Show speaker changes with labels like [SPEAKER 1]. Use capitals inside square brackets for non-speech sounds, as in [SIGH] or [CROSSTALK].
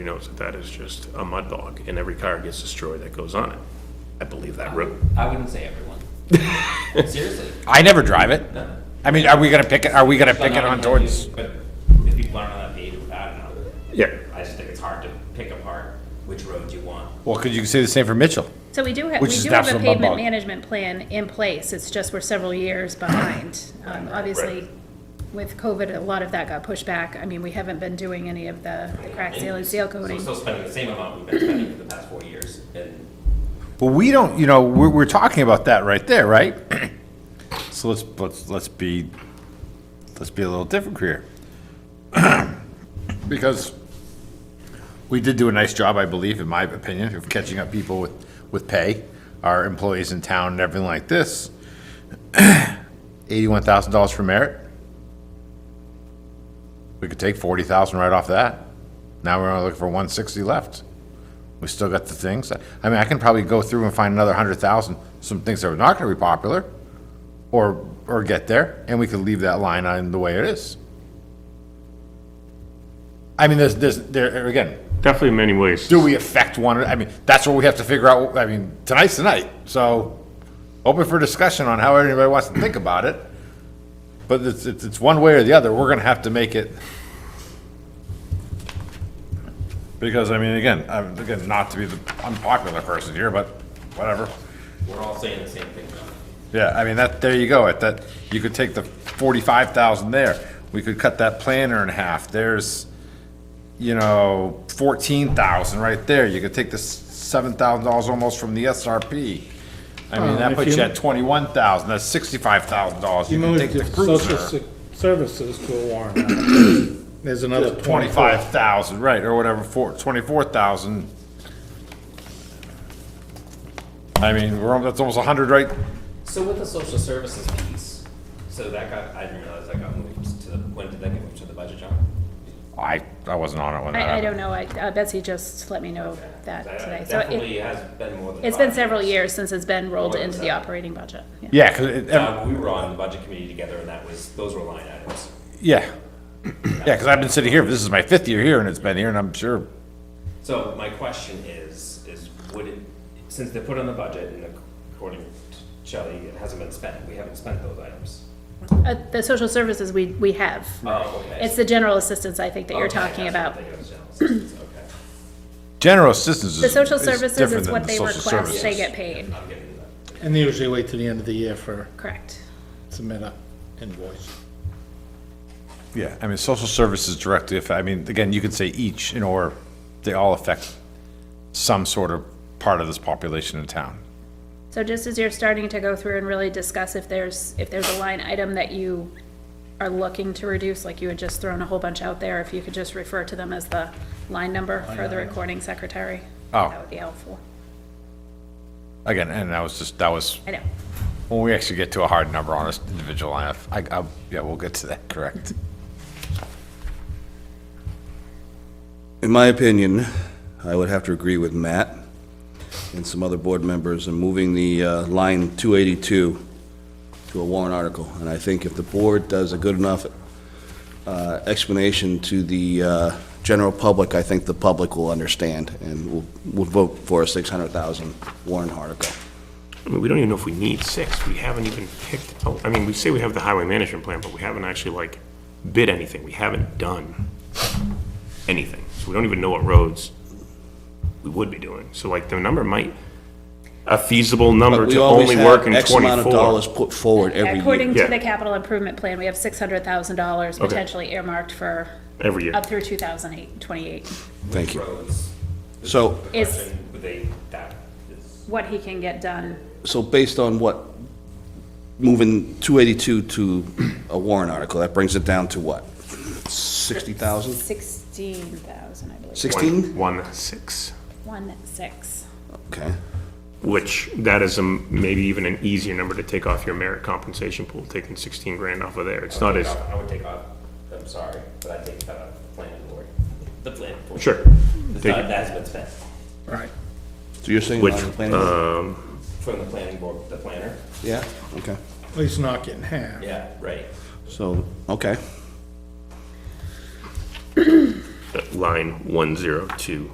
[SPEAKER 1] He knows that that is just a mud bog, and every car gets destroyed that goes on it. I believe that road.
[SPEAKER 2] I wouldn't say everyone. Seriously,
[SPEAKER 3] I never drive it.
[SPEAKER 2] no.
[SPEAKER 3] I mean, are we gonna pick it, are we gonna
[SPEAKER 2] But
[SPEAKER 3] pick it
[SPEAKER 2] not
[SPEAKER 3] on
[SPEAKER 2] everyone
[SPEAKER 3] towards?
[SPEAKER 2] is, But if people aren't on that page, I don't know.
[SPEAKER 1] Yeah,
[SPEAKER 2] I just think it's hard to pick apart which roads you want.
[SPEAKER 3] Well, could you say the same for Mitchell?
[SPEAKER 4] So we do have, we
[SPEAKER 3] Which is
[SPEAKER 4] do have a
[SPEAKER 3] absolute mud
[SPEAKER 4] pavement
[SPEAKER 3] bog.
[SPEAKER 4] management plan in place, it's just we're several years behind. Um, Obviously, with COVID, a lot of that got pushed back, I mean, we haven't been doing any of the the crack seal and seal
[SPEAKER 2] So we're
[SPEAKER 4] coating.
[SPEAKER 2] still spending the same amount we've been spending for the past four years, and
[SPEAKER 3] But we don't, you know, we're, we're talking about that right there, right? [CLEARS THROAT] So let's, let's, let's be, let's be a little different here. [CLEARS THROAT] Because we did do a nice job, I believe, in my opinion, of catching up people with, with pay, our employees in town and everything like this. [CLEARS THROAT] Eighty-one thousand dollars for merit. We could take forty thousand right off that. Now we're only looking for one sixty left. We still got the things. I mean, I can probably go through and find another hundred thousand, some things that are not gonna be popular, or, or get there, and we could leave that line on the way it is. I mean, there's, there's, there, again,
[SPEAKER 1] definitely in many ways.
[SPEAKER 3] do we affect one, I mean, that's what we have to figure out, I mean, tonight's tonight, so open for discussion on how everybody wants to think about it. But it's, it's, it's one way or the other, we're gonna have to make it. Because, I mean, again, I'm, again, not to be the unpopular person here, but whatever.
[SPEAKER 2] we're all saying the same thing now.
[SPEAKER 3] Yeah, I mean, that, there you go, at that, you could take the forty-five thousand there, we could cut that planner in half, there's, you know, fourteen thousand right there, you could take the seven thousand dollars almost from the SRP. I mean,
[SPEAKER 5] Well,
[SPEAKER 3] that
[SPEAKER 5] if
[SPEAKER 3] puts you
[SPEAKER 5] you-
[SPEAKER 3] at twenty-one thousand, that's sixty-five thousand dollars, you can take the
[SPEAKER 5] social
[SPEAKER 3] cruiser.
[SPEAKER 5] se- services to a warrant article. There's another
[SPEAKER 3] Twenty-five thousand, right, or whatever, four, twenty-four thousand. I mean, we're, al- that's almost a hundred, right?
[SPEAKER 2] So with the social services piece, so that got, I didn't realize that got moved to the, when did that get moved to the budget, John?
[SPEAKER 3] I, I wasn't on it when that
[SPEAKER 4] I, I
[SPEAKER 3] happened.
[SPEAKER 4] don't know, I- uh, Betsy just let me know that
[SPEAKER 2] That
[SPEAKER 4] today, so it,
[SPEAKER 2] Definitely has been more than
[SPEAKER 4] it's been
[SPEAKER 2] five
[SPEAKER 4] several years since it's been rolled
[SPEAKER 2] More than
[SPEAKER 4] into the
[SPEAKER 2] seven.
[SPEAKER 4] operating budget. Yeah.
[SPEAKER 3] Yeah, 'cause it, ev-
[SPEAKER 2] Uh, we were on the budget committee together, and that was, those were line items.
[SPEAKER 3] yeah. [CLEARS THROAT] Yeah, because I've been sitting here, this is my fifth year here, and it's been here, and I'm sure,
[SPEAKER 2] So my question is, is would it, since they put on the budget and according to Shelley, it hasn't been spent, we haven't spent those items.
[SPEAKER 4] Uh, the social services, we, we have,
[SPEAKER 2] Oh, okay.
[SPEAKER 4] it's the general assistance, I think, that you're
[SPEAKER 2] Okay,
[SPEAKER 4] talking
[SPEAKER 2] that's what
[SPEAKER 4] about.
[SPEAKER 2] I'm
[SPEAKER 1] [CLEARS THROAT]
[SPEAKER 2] thinking of, general assistance, okay.
[SPEAKER 3] general assistance is.
[SPEAKER 4] The social
[SPEAKER 3] is
[SPEAKER 4] services
[SPEAKER 3] different
[SPEAKER 4] is
[SPEAKER 3] than
[SPEAKER 4] what
[SPEAKER 3] the
[SPEAKER 4] they
[SPEAKER 3] social
[SPEAKER 4] request, they
[SPEAKER 3] services.
[SPEAKER 4] get paid,
[SPEAKER 2] I'm getting that.
[SPEAKER 5] And they usually wait till the end of the year for
[SPEAKER 4] correct.
[SPEAKER 5] submit a invoice.
[SPEAKER 3] Yeah, I mean, social services directly, if, I mean, again, you could say each, and or they all affect some sort of part of this population in town.
[SPEAKER 4] So just as you're starting to go through and really discuss if there's, if there's a line item that you are looking to reduce, like you had just thrown a whole bunch out there, if you could just refer to them as the line number for the recording secretary.
[SPEAKER 3] Oh.
[SPEAKER 4] That would be helpful.
[SPEAKER 3] Again, and that was just, that was,
[SPEAKER 4] I know.
[SPEAKER 3] when we actually get to a hard number on an individual lineup, I, I, yeah, we'll get to that, correct.
[SPEAKER 6] In my opinion, I would have to agree with Matt and some other board members in moving the uh, line 282 to a warrant article. And I think if the board does a good enough uh, explanation to the uh, general public, I think the public will understand and will will vote for a 600,000 warrant article.
[SPEAKER 1] I mean, we don't even know if we need six. We haven't even picked, oh, I mean, we say we have the highway management plan, but we haven't actually like bid anything. We haven't done anything. So we don't even know what roads we would be doing. So like the number might, a feasible number
[SPEAKER 6] But we
[SPEAKER 1] to
[SPEAKER 6] always
[SPEAKER 1] only
[SPEAKER 6] have
[SPEAKER 1] work in
[SPEAKER 6] X amount of dollars
[SPEAKER 1] twenty-four.
[SPEAKER 6] put forward every year.
[SPEAKER 4] According to
[SPEAKER 1] Yeah.
[SPEAKER 4] the capital improvement plan, we have six hundred thousand dollars potentially earmarked for
[SPEAKER 1] Every year.
[SPEAKER 4] up through 2008, 28.
[SPEAKER 6] Thank you.
[SPEAKER 2] Roads,
[SPEAKER 6] So,
[SPEAKER 2] the
[SPEAKER 4] It's-
[SPEAKER 2] question, would they, that is,
[SPEAKER 4] what he can get done.
[SPEAKER 6] so based on what, moving 282 to a warrant article, that brings it down to what? 60,000?
[SPEAKER 4] Sixteen thousand, I believe,
[SPEAKER 6] 16?
[SPEAKER 1] One, six,
[SPEAKER 4] one, six.
[SPEAKER 6] Okay.
[SPEAKER 1] which that is a m- maybe even an easier number to take off your merit compensation pool, taking sixteen grand off of there. It's not as,
[SPEAKER 2] I would take off, I'm sorry, but I'd take that off the planning board, the planning board.
[SPEAKER 1] sure.
[SPEAKER 2] It's
[SPEAKER 1] Take
[SPEAKER 2] not-
[SPEAKER 1] it.
[SPEAKER 2] That's been spent
[SPEAKER 5] Right.
[SPEAKER 6] So you're saying
[SPEAKER 1] Which,
[SPEAKER 6] on the planning board?
[SPEAKER 2] from the planning board, the planner,
[SPEAKER 6] Yeah, okay.
[SPEAKER 5] At least not getting half.
[SPEAKER 2] yeah, right.
[SPEAKER 6] So, okay.
[SPEAKER 1] line 102